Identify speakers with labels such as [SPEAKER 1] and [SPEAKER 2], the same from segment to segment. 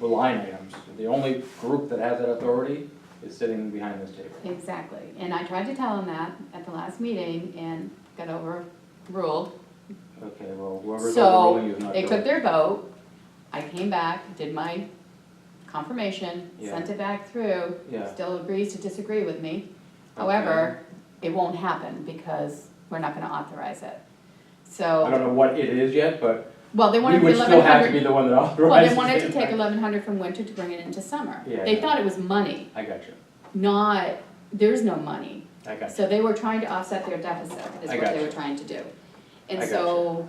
[SPEAKER 1] line items. The only group that has that authority is sitting behind this table.
[SPEAKER 2] Exactly, and I tried to tell him that at the last meeting and got overruled.
[SPEAKER 1] Okay, well, whoever's overruling you
[SPEAKER 2] So
[SPEAKER 1] is not
[SPEAKER 2] they
[SPEAKER 1] doing
[SPEAKER 2] took
[SPEAKER 1] it.
[SPEAKER 2] their vote, I came back, did my confirmation, sent it back through.
[SPEAKER 1] Yeah.
[SPEAKER 2] Still agrees to disagree with me, however, it won't happen because we're not gonna authorize it.
[SPEAKER 1] I don't
[SPEAKER 2] So,
[SPEAKER 1] know what it is yet, but
[SPEAKER 2] well, they
[SPEAKER 1] we
[SPEAKER 2] wanted the
[SPEAKER 1] would still
[SPEAKER 2] eleven
[SPEAKER 1] have to be
[SPEAKER 2] hundred,
[SPEAKER 1] the one that
[SPEAKER 2] well,
[SPEAKER 1] authorizes
[SPEAKER 2] they
[SPEAKER 1] it.
[SPEAKER 2] wanted to take eleven hundred from winter to bring it into summer.
[SPEAKER 1] Yeah,
[SPEAKER 2] They
[SPEAKER 1] yeah.
[SPEAKER 2] thought it was money,
[SPEAKER 1] I got you,
[SPEAKER 2] not, there's no money.
[SPEAKER 1] I got you.
[SPEAKER 2] So they were trying to offset their deficit, is
[SPEAKER 1] I
[SPEAKER 2] what they were
[SPEAKER 1] gotcha.
[SPEAKER 2] trying to do.
[SPEAKER 1] I
[SPEAKER 2] And so,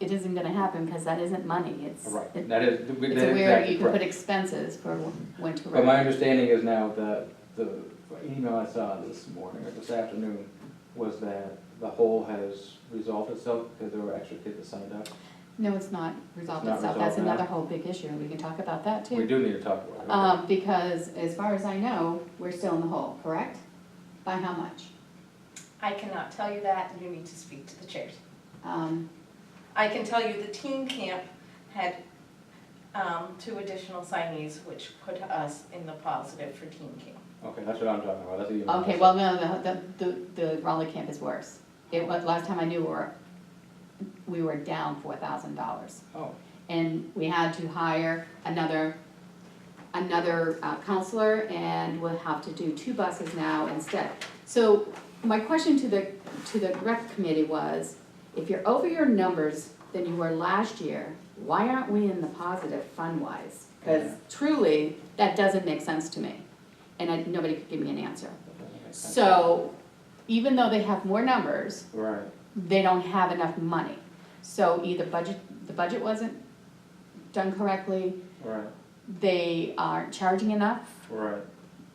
[SPEAKER 2] it isn't gonna happen, because that isn't money, it's,
[SPEAKER 1] Right,
[SPEAKER 2] it-
[SPEAKER 1] that is, that
[SPEAKER 2] it's
[SPEAKER 1] is
[SPEAKER 2] a weird,
[SPEAKER 1] exactly
[SPEAKER 2] you can put
[SPEAKER 1] correct.
[SPEAKER 2] expenses for winter
[SPEAKER 1] But my
[SPEAKER 2] road.
[SPEAKER 1] understanding is now that the email I saw this morning or this afternoon was that the whole has resolved itself because there were extra kids that signed up.
[SPEAKER 2] No, it's not resolved
[SPEAKER 1] not
[SPEAKER 2] itself, that's
[SPEAKER 1] resolved now.
[SPEAKER 2] another whole big issue, and we can talk about that too.
[SPEAKER 1] We do need to talk about it. okay.
[SPEAKER 2] Um, because as far as I know, we're still in the hole, correct? By how much?
[SPEAKER 3] I cannot tell you that, you need to speak to the chairs.
[SPEAKER 2] Um,
[SPEAKER 3] I can tell you the teen camp had um, two additional signees, which put us in the positive for teen camp.
[SPEAKER 1] Okay, that's what I'm talking about, that's the email. I
[SPEAKER 2] okay,
[SPEAKER 1] saw.
[SPEAKER 2] well, no, the, the, the Raleigh camp is worse. It was, last time I knew, we were, we were down four thousand dollars.
[SPEAKER 1] Oh,
[SPEAKER 2] and we had to hire another, another uh, counselor, and we'll have to do two buses now instead. So my question to the, to the rec committee was, if you're over your numbers than you were last year, why aren't we in the positive fund-wise? Because
[SPEAKER 1] Yeah.
[SPEAKER 2] truly, that doesn't make sense to me, and I, nobody could give me an answer.
[SPEAKER 1] that doesn't make sense.
[SPEAKER 2] So, even though they have more numbers,
[SPEAKER 1] Right,
[SPEAKER 2] they don't have enough money. So either budget, the budget wasn't done correctly,
[SPEAKER 1] right,
[SPEAKER 2] they aren't charging enough,
[SPEAKER 1] right.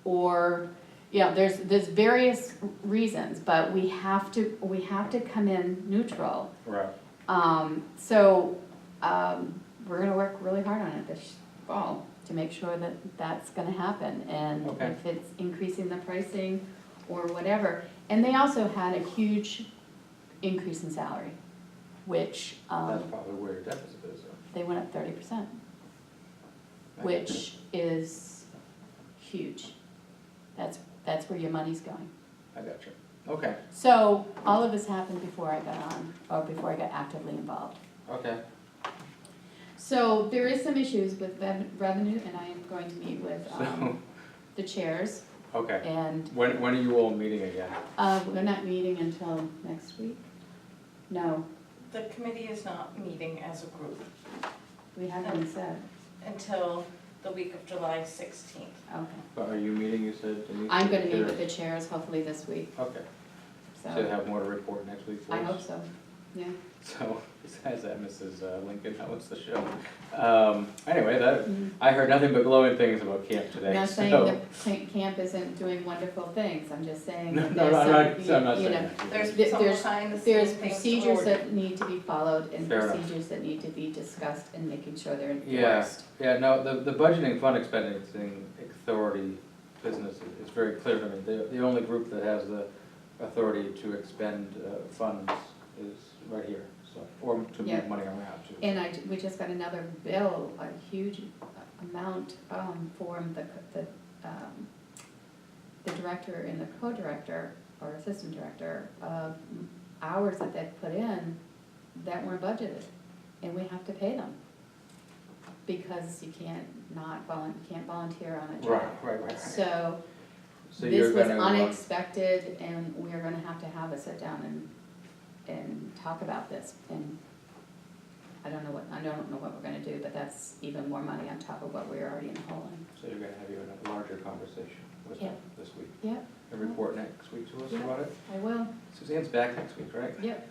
[SPEAKER 2] or, you know, there's, there's various reasons, but we have to, we have to come in neutral.
[SPEAKER 1] Right.
[SPEAKER 2] Um, so, um, we're gonna work really hard on it this fall to make sure that that's gonna happen. And
[SPEAKER 1] Okay.
[SPEAKER 2] if it's increasing the pricing or whatever. And they also had a huge increase in salary, which,
[SPEAKER 1] That's
[SPEAKER 2] um,
[SPEAKER 1] probably where your deficit is, though.
[SPEAKER 2] they went up thirty percent,
[SPEAKER 1] I guess.
[SPEAKER 2] which is huge. That's, that's where your money's going.
[SPEAKER 1] I got you. Okay,
[SPEAKER 2] So all of this happened before I got on, or before I got actively involved.
[SPEAKER 1] okay,
[SPEAKER 2] So there is some issues with rev- revenue, and I am going to meet with
[SPEAKER 1] so,
[SPEAKER 2] um, the chairs,
[SPEAKER 1] okay.
[SPEAKER 2] and
[SPEAKER 1] When, when are you all meeting again?
[SPEAKER 2] uh, we're not meeting until next week? No,
[SPEAKER 3] The committee is not meeting as a group
[SPEAKER 2] we haven't said,
[SPEAKER 3] until the week of July 16th.
[SPEAKER 2] okay.
[SPEAKER 1] But are you meeting, you said, Denise?
[SPEAKER 2] I'm gonna meet with
[SPEAKER 1] Sure.
[SPEAKER 2] the chairs hopefully this week,
[SPEAKER 1] Okay, so you
[SPEAKER 2] so,
[SPEAKER 1] have more to report next week for
[SPEAKER 2] I
[SPEAKER 1] us?
[SPEAKER 2] hope so, yeah.
[SPEAKER 1] So, besides that, Mrs. uh, Lincoln, that was the show. Um, anyway, that,
[SPEAKER 2] Mhm.
[SPEAKER 1] I heard nothing but glowing things about camp today,
[SPEAKER 2] I'm not saying
[SPEAKER 1] so-
[SPEAKER 2] that ca- camp isn't doing wonderful things, I'm just saying
[SPEAKER 1] No,
[SPEAKER 2] that
[SPEAKER 1] no,
[SPEAKER 2] there's
[SPEAKER 1] no, I'm not, so I'm
[SPEAKER 2] some,
[SPEAKER 1] not
[SPEAKER 2] you- you
[SPEAKER 1] saying
[SPEAKER 2] know,
[SPEAKER 1] that.
[SPEAKER 3] There's
[SPEAKER 2] There-
[SPEAKER 3] some
[SPEAKER 2] there's-
[SPEAKER 3] sign the same
[SPEAKER 2] there's
[SPEAKER 3] things
[SPEAKER 2] procedures
[SPEAKER 3] forward.
[SPEAKER 2] that need to be followed and
[SPEAKER 1] Fair enough.
[SPEAKER 2] procedures that need to be discussed and making sure they're enforced.
[SPEAKER 1] Yeah. Yeah, no, the, the budgeting fund expending authority business is- is very clear to me. The, the only group that has the authority to expend uh, funds is right here, so, or to move
[SPEAKER 2] Yeah.
[SPEAKER 1] money around too.
[SPEAKER 2] And I, we just got another bill, a huge amount, um, from the, the, um, the director and the co-director, or assistant director, of hours that they've put in that weren't budgeted, and we have to pay them. Because you can't not volun, you can't volunteer on a
[SPEAKER 1] Right,
[SPEAKER 2] job.
[SPEAKER 1] right, right, right.
[SPEAKER 2] So,
[SPEAKER 1] So you're
[SPEAKER 2] this was
[SPEAKER 1] gonna, uh,
[SPEAKER 2] unexpected, and we're gonna have to have a sit down and, and talk about this, and I don't know what, I don't know what we're gonna do, but that's even more money on top of what we're already in the hole in.
[SPEAKER 1] So you're gonna have you in a larger conversation with
[SPEAKER 2] Yeah.
[SPEAKER 1] them this week,
[SPEAKER 2] Yep,
[SPEAKER 1] and report next week to us
[SPEAKER 2] Yeah.
[SPEAKER 1] about it?
[SPEAKER 2] I will,
[SPEAKER 1] Suzanne's back next week, right?
[SPEAKER 2] yep.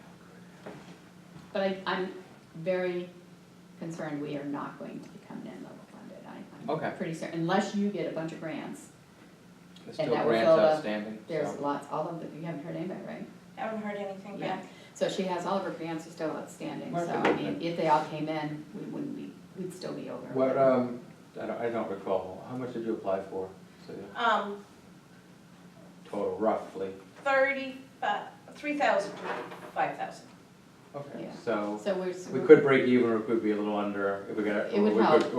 [SPEAKER 2] But I, I'm very concerned we are not going to be coming in level funded, I,
[SPEAKER 1] Okay.
[SPEAKER 2] I'm pretty certain, unless you get a bunch of grants,
[SPEAKER 1] There's
[SPEAKER 2] And
[SPEAKER 1] still
[SPEAKER 2] that was
[SPEAKER 1] grants
[SPEAKER 2] all the-
[SPEAKER 1] outstanding,
[SPEAKER 2] there's
[SPEAKER 1] so,
[SPEAKER 2] lots, all of the, you haven't heard anybody, right?
[SPEAKER 3] Haven't heard anything
[SPEAKER 2] Yeah,
[SPEAKER 3] back.
[SPEAKER 2] so she has, all of her grants are still outstanding, so I
[SPEAKER 1] Right.
[SPEAKER 2] mean, if they all came in, we wouldn't be, we'd still be over.
[SPEAKER 1] what, um, I don't, I don't recall, how much did you apply for, so,
[SPEAKER 3] Um,
[SPEAKER 1] total roughly?
[SPEAKER 3] 30, uh, 3,000, 5,000.
[SPEAKER 1] Okay,
[SPEAKER 2] Yeah.
[SPEAKER 1] so
[SPEAKER 2] So we're. s-
[SPEAKER 1] we could break even or it could be a little under if we got.
[SPEAKER 2] It would
[SPEAKER 1] or we could-
[SPEAKER 2] help.